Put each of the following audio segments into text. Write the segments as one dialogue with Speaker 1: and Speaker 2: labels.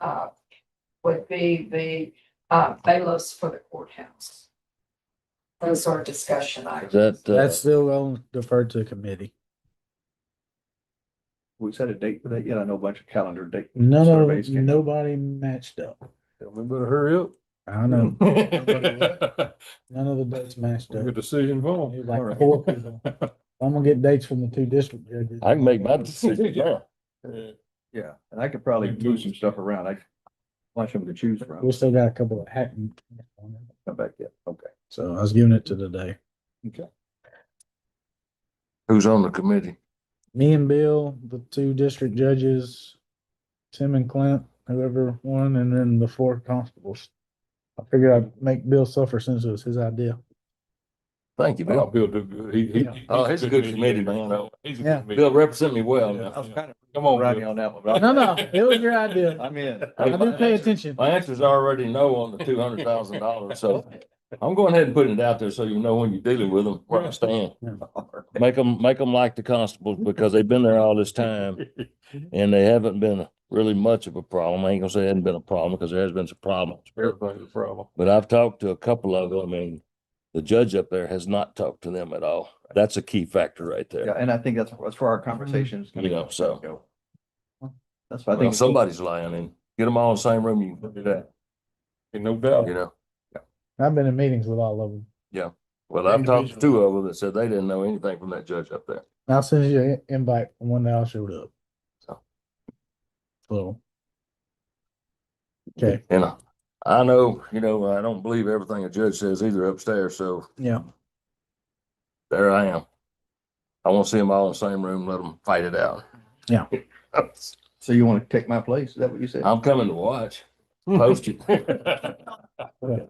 Speaker 1: uh, would be the, uh, bailiffs for the courthouse. Those are discussion items.
Speaker 2: That,
Speaker 3: That's
Speaker 2: uh,
Speaker 3: still on deferred to committee.
Speaker 4: We set a date for that yet? I know a bunch of calendar date.
Speaker 3: None
Speaker 4: surveys
Speaker 3: of,
Speaker 4: came.
Speaker 3: nobody matched up.
Speaker 5: We better hurry up.
Speaker 3: I know,
Speaker 5: Get
Speaker 3: none of the dates matched up.
Speaker 5: the decision form.
Speaker 3: It was like four people. I'm gonna get dates from the two district judges.
Speaker 2: I can make my decision now.
Speaker 4: Yeah, and I could probably move some stuff around. I bunch of them to choose from.
Speaker 3: We still got a couple of hacking.
Speaker 4: Come back yet. Okay.
Speaker 3: So I was giving it to today.
Speaker 2: Who's on the committee?
Speaker 3: Me and Bill, the two district judges, Tim and Clint, whoever won, and then the four constables. I figured I'd make Bill suffer since it was his idea.
Speaker 2: Thank you, Bill.
Speaker 5: Oh, Bill do good. He, he.
Speaker 3: Yeah.
Speaker 2: Oh, he's a good committee man.
Speaker 5: He's a
Speaker 3: Yeah.
Speaker 5: good
Speaker 2: Bill,
Speaker 5: committee.
Speaker 2: represent me well
Speaker 5: Yeah.
Speaker 2: now.
Speaker 4: I was kind of
Speaker 5: Come on,
Speaker 4: riding
Speaker 5: Bill.
Speaker 4: on that one. but
Speaker 3: No,
Speaker 4: I'm-
Speaker 3: no, it was your idea.
Speaker 4: I'm in.
Speaker 3: I didn't pay attention.
Speaker 2: My answer's already no on the two hundred thousand dollars, so I'm going ahead and putting it out there so you know when you're dealing with them, where I stand. Make them, make them like the constables because they've been there all this time and they haven't been really much of a problem. I ain't gonna say it hasn't been a problem because there has been some problems.
Speaker 5: Everything's a problem.
Speaker 2: But I've talked to a couple of them and the judge up there has not talked to them at all. That's a key factor right
Speaker 4: Yeah,
Speaker 2: there.
Speaker 4: and I think that's, that's where our conversations.
Speaker 2: You know, so.
Speaker 4: go. That's why I
Speaker 2: Well,
Speaker 4: think.
Speaker 2: somebody's lying and get them all in the same room, you can do that,
Speaker 5: Ain't no doubt.
Speaker 2: you know?
Speaker 3: I've been in meetings with all of them.
Speaker 2: Well, I've talked to two of them that said they didn't know anything from that judge up there.
Speaker 3: I'll send you an invite from when they all showed up.
Speaker 2: So.
Speaker 3: So. Okay,
Speaker 2: And I- I know, you know, I don't believe everything a judge says either upstairs, so
Speaker 3: yeah,
Speaker 2: there I am. I want to see them all in the same room, let them fight it out.
Speaker 3: Yeah.
Speaker 4: So you want to take my place? Is that what you said?
Speaker 2: I'm coming to watch,
Speaker 5: Hmm.
Speaker 2: post it.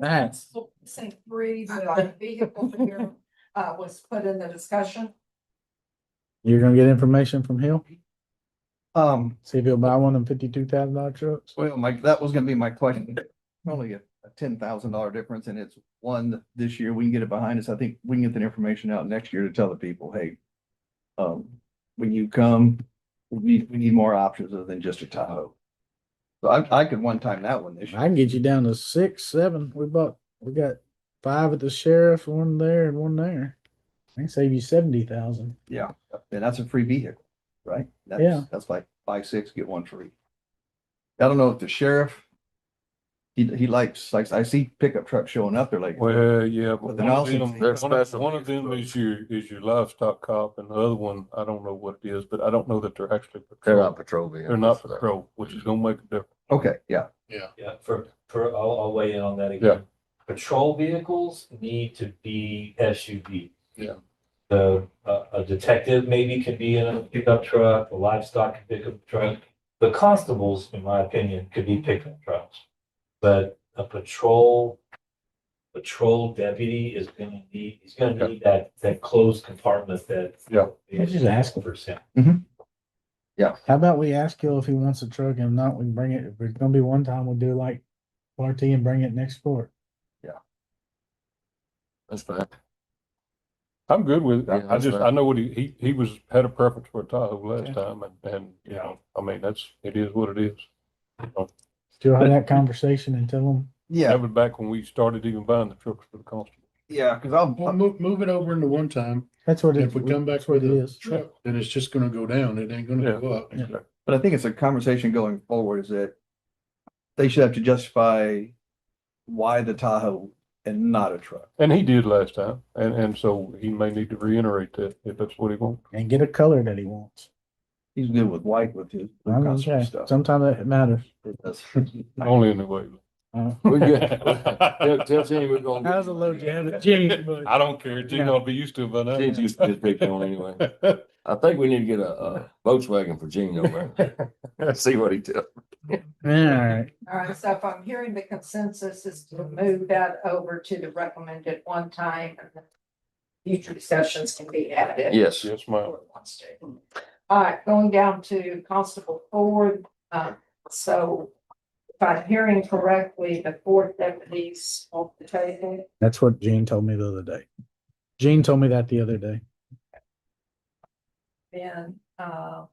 Speaker 3: Nice.
Speaker 1: Precinct three, the uh, vehicle here, uh, was put in the discussion.
Speaker 3: you're gonna get information from Hill,
Speaker 4: Um,
Speaker 3: see if he'll buy one of them fifty-two thousand dollar trucks.
Speaker 4: Well, Mike, that was gonna be my question. Only a, a ten thousand dollar difference and it's one this year. We can get it behind us. I think we can get that information out next year to tell the people, hey. Um, when you come, we need, we need more options other than just a Tahoe. So I, I could one time that one this year.
Speaker 3: I can get you down to six, seven, we bought, we got five at the sheriff, one there and one there. I can save you seventy thousand.
Speaker 4: Yeah. And that's a free vehicle, right? That's-
Speaker 3: Yeah.
Speaker 4: That's like buy six, get one free. I don't know if the sheriff. He, he likes, likes, I see pickup trucks showing up. They're like,
Speaker 5: Well, yeah, but
Speaker 4: But
Speaker 5: one
Speaker 4: then
Speaker 5: of
Speaker 4: also
Speaker 5: them,
Speaker 4: they're
Speaker 5: one of-
Speaker 2: special.
Speaker 5: one of them is your, is your livestock cop and the other one, I don't know what it is, but I don't know that they're actually.
Speaker 2: They're not patrol
Speaker 5: patrol.
Speaker 2: vehicles.
Speaker 5: They're not patrol, which is gonna make a difference.
Speaker 4: okay, yeah,
Speaker 6: Yeah, for, for, I'll, I'll weigh in on that
Speaker 5: Yeah.
Speaker 6: again. Patrol vehicles need to be SUV.
Speaker 5: Yeah.
Speaker 6: So a, uh, a detective maybe could be in a pickup truck, a livestock could pick up a truck. The constables, in my opinion, could be pickup trucks. But a patrol, patrol deputy is gonna need, he's gonna
Speaker 5: Okay.
Speaker 6: need that, that closed compartment that.
Speaker 5: Yeah.
Speaker 3: Let's just ask him.
Speaker 6: For him.
Speaker 3: How about we ask Hill if he wants a truck, and if not, we can bring it, if it's gonna be one time, we'll do like party and bring it next court.
Speaker 2: That's fine.
Speaker 5: I'm good with it.
Speaker 2: Yeah,
Speaker 5: I- I
Speaker 2: that's
Speaker 5: just,
Speaker 2: fine.
Speaker 5: I know what he, he, he was, had a preference for a Tahoe last time and, and, you know, I mean, that's, it is what it is.
Speaker 3: Still have that conversation and tell him,
Speaker 4: yeah.
Speaker 5: That was back when we started even buying the trucks for the constable.
Speaker 4: Yeah, because I'll,
Speaker 7: Well, move, move it over into one time.
Speaker 3: that's what it.
Speaker 7: If we come back
Speaker 3: that's what
Speaker 7: with
Speaker 3: it
Speaker 7: a
Speaker 3: is.
Speaker 7: truck, then it's just gonna go down. It ain't
Speaker 5: Mm-hmm. Yeah.
Speaker 7: gonna go up.
Speaker 3: Yeah.
Speaker 4: but I think it's a conversation going forward is that they should have to justify why the Tahoe and not a truck.
Speaker 5: And he did last time. And, and so he may need to reiterate that if that's what he wants.
Speaker 3: And get a color that he wants.
Speaker 4: He's good with white with his
Speaker 3: I'm
Speaker 4: blue
Speaker 3: gonna
Speaker 4: concept
Speaker 3: say,
Speaker 4: stuff.
Speaker 3: Sometimes that matters.
Speaker 4: It does.
Speaker 5: Only in the way.
Speaker 3: Uh,
Speaker 2: We're good. Tell, tell Jimmy we're gonna.
Speaker 3: That was a low jab, Jimmy, but-
Speaker 5: I don't care. Gene ought to be used to it by now.
Speaker 2: Gene's used to his big one anyway. I think we need to get a, a Volkswagen for Gene over there. See what he does.
Speaker 3: Alright,
Speaker 1: All right, so if I'm hearing the consensus is to move that over to the recommended one time and then future discussions can be added.
Speaker 2: Yes.
Speaker 5: Yes, ma'am.
Speaker 1: Or wants to. All right, going down to Constable Ford, uh, so if I'm hearing correctly, the four deputies off the table.
Speaker 3: that's what Gene told me the other day. Gene told me that the other day.
Speaker 1: Then, uh,